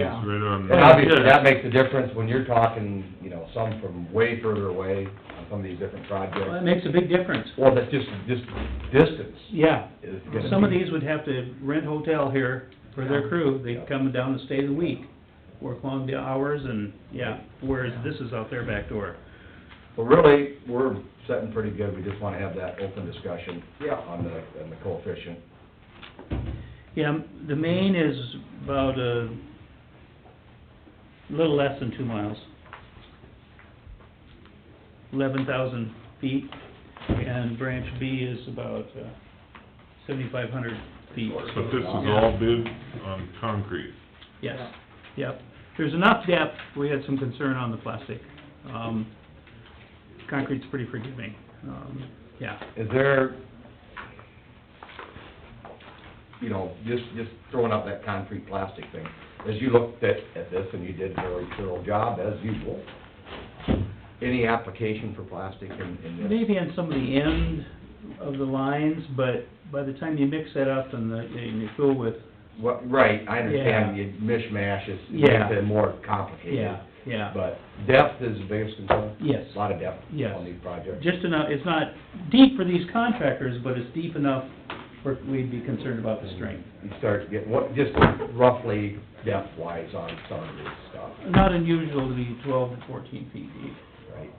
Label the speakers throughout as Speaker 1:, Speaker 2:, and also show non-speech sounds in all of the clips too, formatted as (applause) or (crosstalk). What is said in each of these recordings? Speaker 1: Yeah.
Speaker 2: right on.
Speaker 1: And obviously, that makes a difference when you're talking, you know, some from way further away on some of these different
Speaker 3: Well, it
Speaker 1: projects.
Speaker 3: makes a big difference.
Speaker 1: Or that just, just distance
Speaker 3: Yeah,
Speaker 1: is gonna be.
Speaker 3: some of these would have to rent hotel here for their crew, they'd come down and stay the week, work long the hours and, yeah, whereas this is out their back door.
Speaker 1: But really, we're setting pretty good, we just wanna have that open discussion. On the, on the coefficient.
Speaker 3: Yeah, the main is about a little less than two miles. Eleven thousand feet, and branch B is about uh, seventy-five hundred feet.
Speaker 2: But this is all bid on concrete.
Speaker 3: Yes, yep. There's enough depth, we had some concern on the plastic. Um, concrete's pretty forgiving, um, yeah.
Speaker 1: Is there, you know, just, just throwing out that concrete plastic thing, as you looked at, at this, and you did a very thorough job, as usual, any application for plastic in, in this?
Speaker 3: Maybe on some of the end of the lines, but by the time you mix that up and the, and you fill with,
Speaker 1: Well, right, I understand,
Speaker 3: Yeah.
Speaker 1: you mishmash, it's, it
Speaker 3: Yeah.
Speaker 1: makes it more complicated.
Speaker 3: yeah, yeah.
Speaker 1: But depth is the biggest concern?
Speaker 3: Yes.
Speaker 1: A Lot of depth
Speaker 3: Yes.
Speaker 1: on these projects?
Speaker 3: Just enough, it's not deep for these contractors, but it's deep enough for, we'd be concerned about the strength.
Speaker 1: You start getting, what, just roughly depth-wise on some of this stuff,
Speaker 3: Not unusual to be twelve to fourteen feet deep,
Speaker 1: right?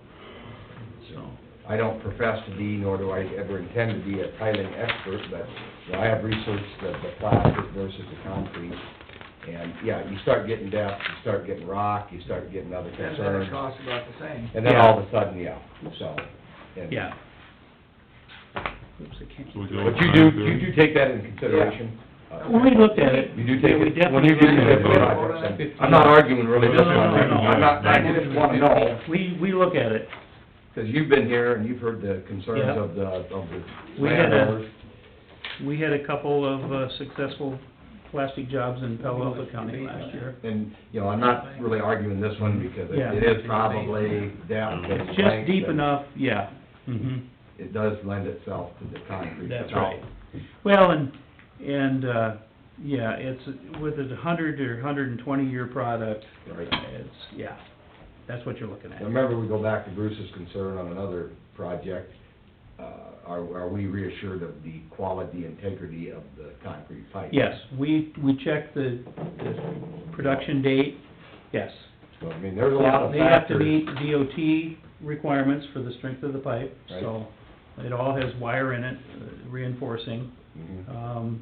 Speaker 3: so.
Speaker 1: I don't profess to be, nor do I ever intend to be a tiling expert, but you know, I have researched the, the plastic versus the concrete. And, yeah, you start getting depth, you start getting rock, you start getting other
Speaker 4: And then it
Speaker 1: concerns.
Speaker 4: costs about the same.
Speaker 1: And then all of a sudden, yeah, so. and-
Speaker 3: Yeah. Oops, I can't.
Speaker 2: So we go
Speaker 1: But you do, you do take that into consideration. Uh,
Speaker 3: When we looked at it.
Speaker 1: You do
Speaker 3: yeah, we
Speaker 1: take it, when you do the
Speaker 3: definitely looked at it.
Speaker 1: different projects, and I'm not arguing really
Speaker 2: No,
Speaker 1: this one,
Speaker 2: no, no, no.
Speaker 1: I'm not, I just wanna know,
Speaker 3: We, we look at it.
Speaker 1: because you've been here and you've heard the concerns
Speaker 3: Yeah.
Speaker 1: of the, of the
Speaker 3: We had a-
Speaker 1: landowners.
Speaker 3: We had a couple of uh, successful plastic jobs in Palo Alto County last year.
Speaker 1: And, you know, I'm not really arguing this one because it-
Speaker 3: Yeah.
Speaker 1: it is probably down. to the
Speaker 3: It's
Speaker 1: length
Speaker 3: just deep
Speaker 1: and
Speaker 3: enough, yeah. Mhm.
Speaker 1: It does lend itself to the concrete.
Speaker 3: That's
Speaker 1: without-
Speaker 3: right. Well, and, and, uh, yeah, it's, with a hundred or hundred and twenty year product,
Speaker 1: Right.
Speaker 3: it's, yeah, that's what you're looking at.
Speaker 1: And remember, we go back to Bruce's concern on another project. Uh, are, are we reassured of the quality, integrity of the concrete pipe?
Speaker 3: Yes, we, we checked the, the production date, yes.
Speaker 1: So, I mean, there's a lot of
Speaker 3: They have to
Speaker 1: factors.
Speaker 3: meet DOT requirements for the strength of the pipe, so it all has wire in it, uh, reinforcing.
Speaker 1: Mhm.
Speaker 3: Um,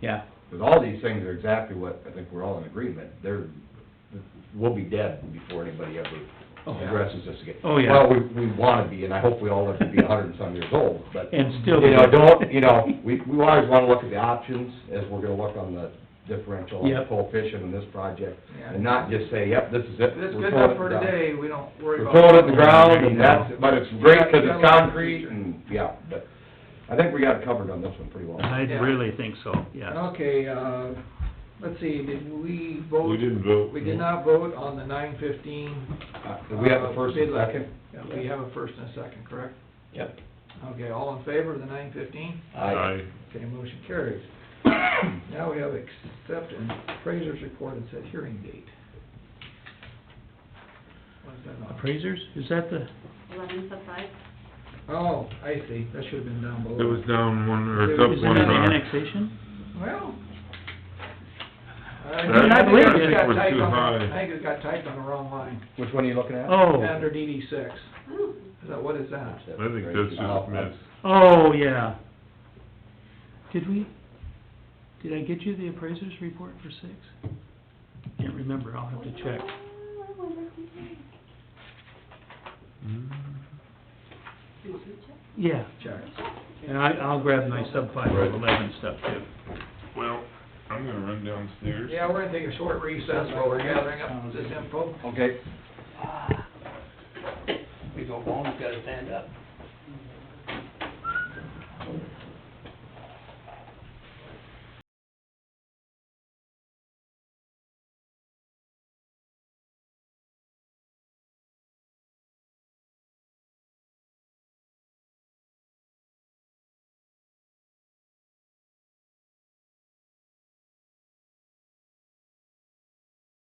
Speaker 3: yeah,
Speaker 1: But all these things are exactly what I think we're all in agreement, they're, we'll be dead before anybody ever
Speaker 3: Oh, yeah.
Speaker 1: addresses this again.
Speaker 3: Oh, yeah.
Speaker 1: Well, we, we wanna be, and I hope we all live to be a hundred and some years old, but, you
Speaker 3: and still.
Speaker 1: know,
Speaker 3: (laughs)
Speaker 1: don't, you know, we, we always wanna look at the options, as we're gonna look on the differential and
Speaker 3: Yep.
Speaker 1: coefficient in this project,
Speaker 4: Yeah.
Speaker 1: and not just say, yep, this is it.
Speaker 4: If it's
Speaker 1: we're
Speaker 4: good
Speaker 1: throwing
Speaker 4: enough for
Speaker 1: it down.
Speaker 4: today, we don't worry
Speaker 1: We're
Speaker 4: about.
Speaker 1: throwing it in the ground,
Speaker 3: You
Speaker 1: and
Speaker 3: know.
Speaker 1: that's, but it's great, cause
Speaker 4: You gotta
Speaker 1: it's
Speaker 4: look at the
Speaker 1: concrete,
Speaker 4: future.
Speaker 1: and, yeah, but, I think we got it covered on this one pretty well.
Speaker 3: I
Speaker 4: Yeah.
Speaker 3: really think so, yeah.
Speaker 4: Okay, uh, let's see, did we vote?
Speaker 2: We didn't vote.
Speaker 4: We did not vote on the nine fifteen.
Speaker 1: Uh, do we have the first and second?
Speaker 4: We have a first and a second, correct?
Speaker 1: Yep.
Speaker 4: Okay, all in favor of the nine fifteen?
Speaker 2: Aye.
Speaker 4: Okay, motion carries. (coughs) Now we have accept and appraiser's report and set hearing date. What is that on?
Speaker 3: Appraisers, is that the,
Speaker 5: eleven sub five.
Speaker 4: Oh, I see, that should've been down below.
Speaker 2: It was down one, or it's up
Speaker 3: is
Speaker 2: one
Speaker 3: that the
Speaker 2: rock.
Speaker 3: annexation?
Speaker 4: Well.
Speaker 2: That-
Speaker 4: Uh, I
Speaker 3: I
Speaker 4: think
Speaker 3: believe
Speaker 4: it
Speaker 3: it.
Speaker 4: got
Speaker 2: was
Speaker 4: typed
Speaker 2: too
Speaker 4: on the-
Speaker 2: high.
Speaker 4: I think it got typed on the wrong line,
Speaker 1: Which one are you looking at?
Speaker 3: Oh,
Speaker 4: under DD six. Is that, what is that?
Speaker 2: I think that's just missed.
Speaker 3: oh, yeah. Did we, did I get you the appraisers report for six? Can't remember, I'll have to check.
Speaker 1: Mm-hmm.
Speaker 3: Yeah,
Speaker 4: Check.
Speaker 3: and I, I'll grab my sub five
Speaker 1: Right.
Speaker 3: eleven stuff too.
Speaker 2: Well, I'm gonna run downstairs.
Speaker 4: Yeah, we're gonna take a short recess while we're gathering up this info.
Speaker 1: oh, Okay.
Speaker 6: We go home, he's gotta stand up.